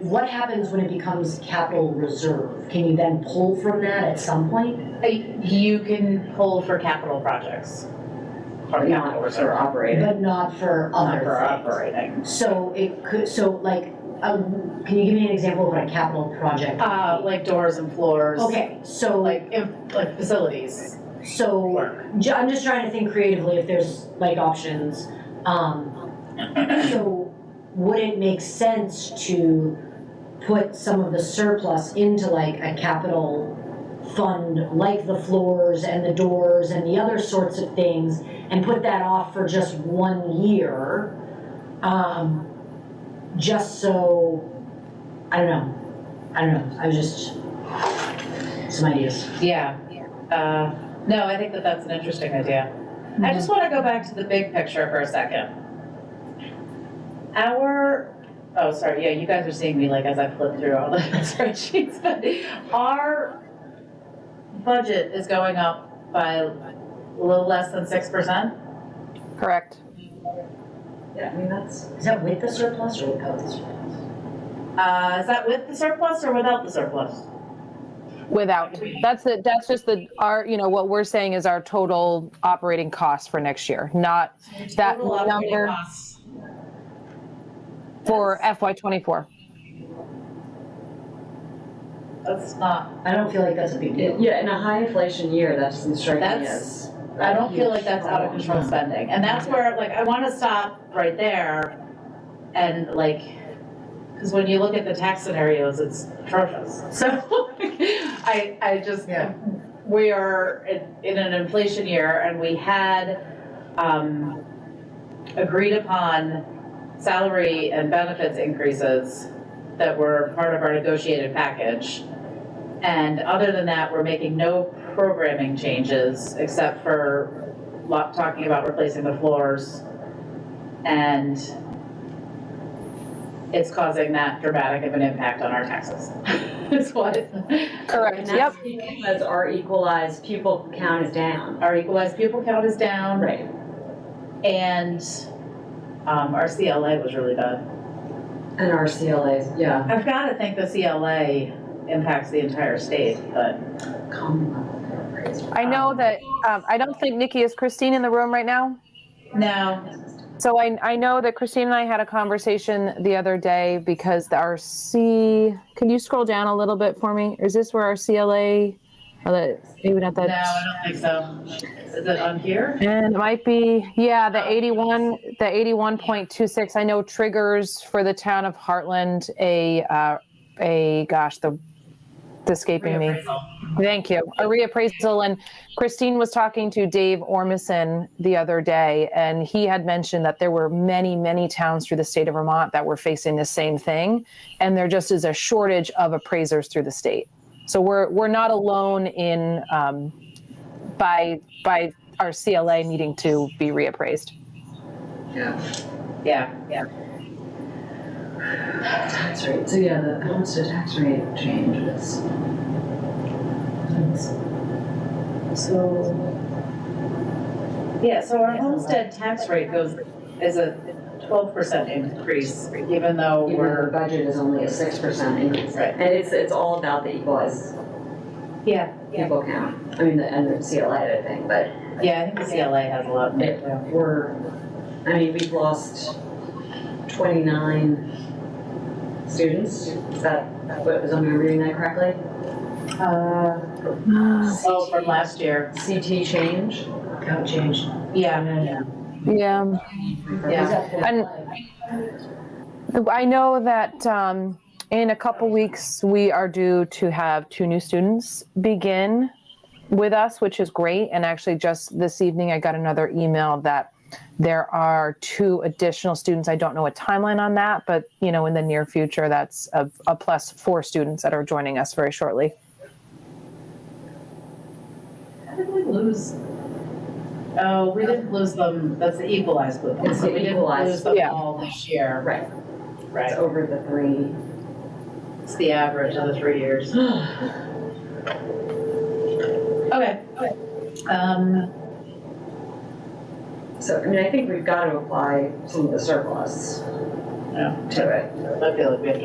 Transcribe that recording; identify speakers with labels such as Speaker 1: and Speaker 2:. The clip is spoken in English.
Speaker 1: what happens when it becomes capital reserve? Can you then pull from that at some point?
Speaker 2: Uh, You can pull for capital projects.
Speaker 3: Or not, or sort of operating,
Speaker 1: But not for
Speaker 3: not for
Speaker 1: other
Speaker 3: operating.
Speaker 1: things? So it could, so like, um, can you give me an example of what a capital project? would
Speaker 2: Uh,
Speaker 1: be?
Speaker 2: like doors and floors.
Speaker 1: Okay, so
Speaker 2: Like, if- like facilities.
Speaker 1: So, ju- I'm just trying to think creatively if there's like options. Um, so, would it make sense to put some of the surplus into like a capital fund, like the floors and the doors and the other sorts of things, and put that off for just one year? Um, just so, I don't know. I don't know. I was just, some ideas.
Speaker 2: Yeah. Uh, no, I think that that's an interesting idea. I just want to go back to the big picture for a second. Our, oh, sorry, yeah, you guys are seeing me like as I flip through all the spreadsheets, but our budget is going up by a little less than six percent.
Speaker 4: Correct.
Speaker 1: Yeah, I mean, that's. Is that with the surplus or without the surplus?
Speaker 2: Uh, is that with the surplus or without the surplus?
Speaker 4: Without, that's the, that's just the, our, you know, what we're saying is our total operating cost for next year, not That
Speaker 2: Total operating
Speaker 4: number-
Speaker 2: costs.
Speaker 4: for FY twenty-four.
Speaker 2: That's not,
Speaker 1: I don't feel like that's a big deal.
Speaker 3: Yeah, in a high inflation year, that's striking
Speaker 2: That's-
Speaker 3: as.
Speaker 2: I don't feel like that's out of control spending, and that's where, like, I wanna stop right there and like, cause when you look at the tax scenarios, it's atrocious, so, I, I just,
Speaker 1: Yeah.
Speaker 2: we are in, in an inflation year, and we had, um, agreed upon salary and benefits increases that were part of our negotiated package. And other than that, we're making no programming changes except for lo- talking about replacing the floors. And it's causing that dramatic of an impact on our taxes. Is what
Speaker 4: Correct,
Speaker 3: And
Speaker 4: yep.
Speaker 3: that's because our equalized pupil count is down.
Speaker 2: our equalized pupil count is down.
Speaker 3: Right.
Speaker 2: And um, our CLA was really bad.
Speaker 3: And our CLAs, yeah.
Speaker 2: I've got to think the CLA impacts the entire state, but
Speaker 3: Commonwealth.
Speaker 4: I know that, um, I don't think Nikki, is Christine in the room right now?
Speaker 2: no,
Speaker 4: So I, I know that Christine and I had a conversation the other day because our C, can you scroll down a little bit for me? Is this where our CLA, or the, maybe not
Speaker 2: no, I
Speaker 4: that?
Speaker 2: don't think so. Is it on here?
Speaker 4: And it might be, yeah, the 81, the 81.26, I know triggers for the town of Heartland a, uh, a, gosh, the, it's escaping me.
Speaker 2: Reappraisal.
Speaker 4: Thank you. A reappraisal. And Christine was talking to Dave Ormison the other day, and he had mentioned that there were many, many towns through the state of Vermont that were facing the same thing. And there just is a shortage of appraisers through the state. So we're, we're not alone in, um, by, by our CLA needing to be reappraised.
Speaker 2: Yeah, yeah.
Speaker 3: Tax rate, so yeah, the homestead tax rate changes.
Speaker 2: So. Yeah, so our homestead tax rate goes, is a twelve percent increase, even though
Speaker 3: Even though the
Speaker 2: we're.
Speaker 3: budget is only a six percent increase.
Speaker 2: Right.
Speaker 3: And it's, it's all about the equalized
Speaker 2: Yeah,
Speaker 3: pupil count, I mean, the, and the CLA, I think, but
Speaker 2: yeah, I think the CLA has a lot. in it, too.
Speaker 3: we're, I mean, we've lost twenty-nine students, is that, what, was I reading that correctly?
Speaker 2: Oh, from last year.
Speaker 3: CT change?
Speaker 1: Count change.
Speaker 2: Yeah,
Speaker 4: Yeah.
Speaker 2: Yeah.
Speaker 1: Is that what-
Speaker 4: And- I know that um, in a couple weeks, we are due to have two new students begin with us, which is great. And actually, just this evening, I got another email that there are two additional students. I don't know a timeline on that, but you know, in the near future, that's a, a plus four students that are joining us very shortly.
Speaker 2: how did we lose? Oh, we didn't lose them, that's the equalized pupil,
Speaker 3: It's
Speaker 2: so
Speaker 3: the
Speaker 2: we didn't
Speaker 3: equalized,
Speaker 2: lose them
Speaker 4: yeah.
Speaker 2: all this year.
Speaker 3: Right, it's over the three.
Speaker 2: It's the average of the three years. Okay, okay. Um,
Speaker 3: So, I mean, I think we've got to apply some of the surplus
Speaker 2: Yeah.
Speaker 3: to it.
Speaker 2: I feel like we have to